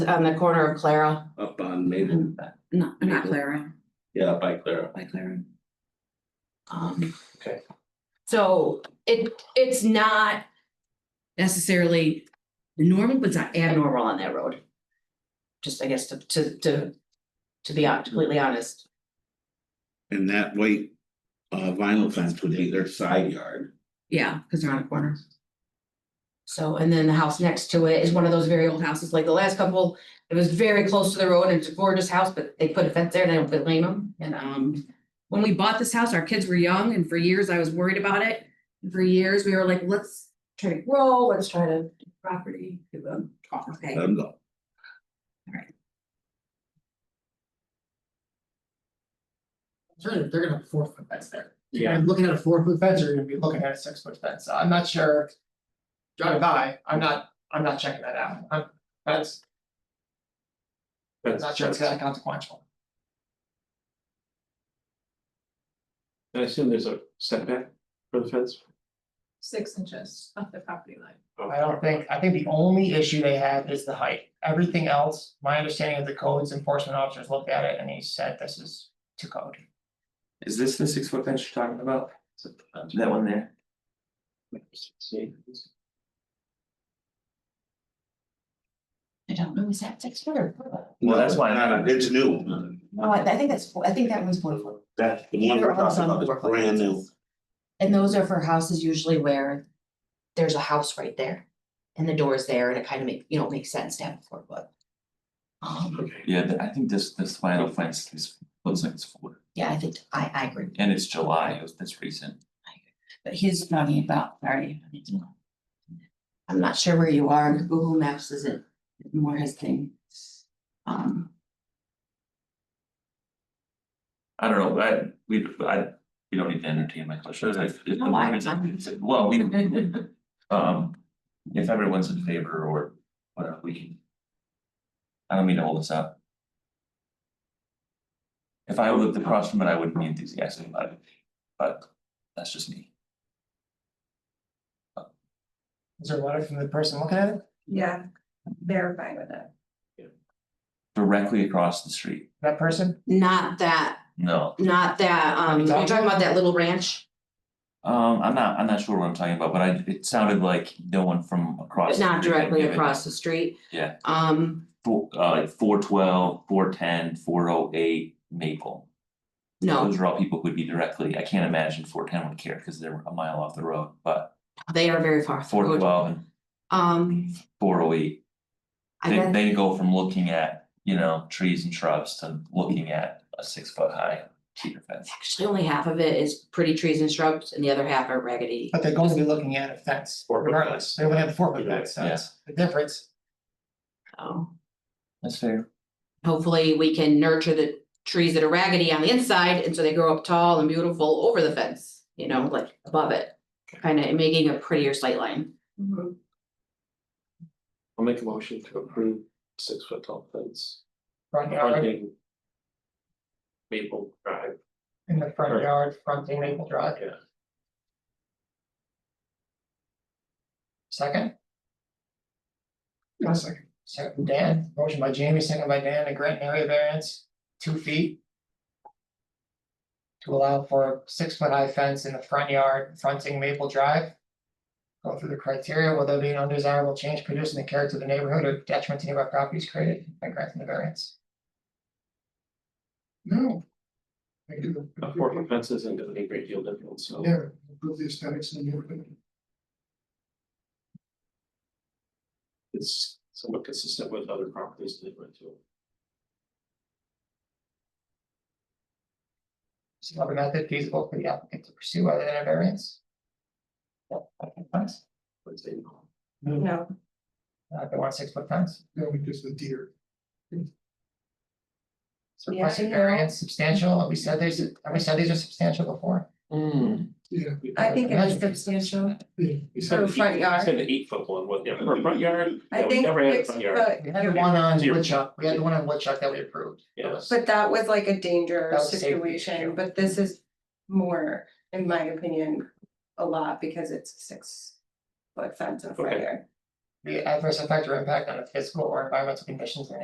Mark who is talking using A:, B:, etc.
A: on the corner of Clara.
B: up on Maple,
C: No,
B: Maybe.
C: not Clara,
B: yeah, by Clara.
C: by Clara.
A: Um.
B: Okay.
A: So it, it's not
C: Necessarily normal, but it's not abnormal.
A: abnormal on that road. Just, I guess, to, to, to, to be hon- completely honest.
B: And that white uh vinyl fence would be their side yard.
C: Yeah, because they're on a corner.
A: So, and then the house next to it is one of those very old houses, like the last couple, it was very close to the road and it's a gorgeous house, but they put a fence there and I don't blame them, and, um.
C: When we bought this house, our kids were young and for years I was worried about it. And For years, we were like, let's try to grow, let's try to do property. do them. Okay,
B: Let them go.
D: Sure, they're gonna have a four foot fence there. Yeah. Looking at a four foot fence, you're gonna be looking at a six foot fence, I'm not sure. Driving by, I'm not, I'm not checking that out, I'm, that's. Not sure it's that consequential.
E: I assume there's a setback for the fence?
F: six inches off the property line.
D: I don't think, I think the only issue they have is the height, everything else, my understanding of the codes enforcement officers looked at it and he said this is to code.
G: Is this the six foot fence you're talking about? That one there?
E: See,
A: I don't know, is that six foot or?
G: Well, that's why-
B: No, It's new.
A: Oh, I, I think that's, I think that one's four foot.
B: That, the one we're talking about is brand new.
A: And those are for houses usually where there's a house right there and the door is there and it kind of make, you know, makes sense to have a four foot. Um,
E: okay.
G: Yeah, th- I think this this vinyl fence is looks like it's four,
A: yeah, I think, I, I agree.
G: and it's July, it was this recent.
A: But he's talking about, sorry. I'm not sure where you are, Google Maps isn't more his thing. Um,
G: I don't know, but I we I we don't need to entertain my questions. I- if-
A: No, I- I'm-
G: Well, we um if everyone's in favor or whatever, we can. I don't mean to hold this up. If I lived across from it, I wouldn't be enthusiastic about it, but that's just me.
D: Is there a letter from the person looking at it?
F: Yeah, they're fine with it.
G: Directly across the street,
D: That person,
A: not that,
G: no.
A: not that, um, you're talking about that little ranch,
G: Um, I'm not, I'm not sure what I'm talking about, but I, it sounded like no one from across.
A: but
G: the
A: not
G: street had
A: directly
G: given
A: across the street.
G: Yeah.
A: Um,
G: Four, uh, like four twelve, four ten, four oh eight, Maple.
A: no,
G: Those are all people who would be directly, I can't imagine four ten would care because they're a mile off the road, but
A: they are very far.
G: four twelve and
A: Um,
G: four oh eight.
A: I
G: They,
A: guess,
G: they go from looking at, you know, trees and shrubs to looking at a six foot high cedar fence.
A: actually only half of it is pretty trees and shrubs and the other half are raggedy.
D: but they're going to be looking at a fence
E: Four foot fence.
D: regardless, they would have the four foot fence, so
G: Yes,
D: the difference.
A: So.
G: that's fair.
A: hopefully we can nurture the trees that are raggedy on the inside and so they grow up tall and beautiful over the fence, you know, like above it. Kind of making a prettier sight line.
F: Mm-hmm.
E: I'll make a motion to approve six foot tall fence.
D: Front yard.
E: fronting Maple Drive.
D: In the front
E: Right.
D: yard, fronting Maple Drive,
E: Yeah.
D: second? second. Second, Dan, motion by Jamie, second by Dan, to grant an area variance, two feet. To allow for a six foot high fence in the front yard fronting Maple Drive. Go through the criteria, will there be an undesirable change produced in the character of the neighborhood or detriment to nearby properties created by granting the variance? No.
E: A four foot fence isn't gonna be a great deal different, so.
D: Yeah, improve the aesthetics in the neighborhood.
E: It's somewhat consistent with other properties that they went to.
D: Is another method feasible for the applicant to pursue other than a variance? Yep, okay, fence,
E: but they didn't.
F: No,
D: uh, they want a six foot fence. No, because the deer. So requested
F: Yeah, I know.
D: variance substantial, have we said there's, have we said these are substantial before?
E: Yeah.
F: I think it is substantial.
E: We said
F: For
E: the eight-
F: front
E: we
F: yard.
E: Said the eight foot one, was yeah, for a front yard,
F: I
E: yeah, we
F: think
E: never had a
F: six
E: front yard.
F: foot,
D: We had the one on
E: Zero.
D: Woodchuck, we had the one on Woodchuck that we approved.
E: Yeah.
F: but that was like a danger
D: That was a safety issue.
F: situation, but this is more, in my opinion, a lot because it's six foot fence in front
E: Okay.
F: yard.
D: the adverse effect or impact on the physical or environmental conditions in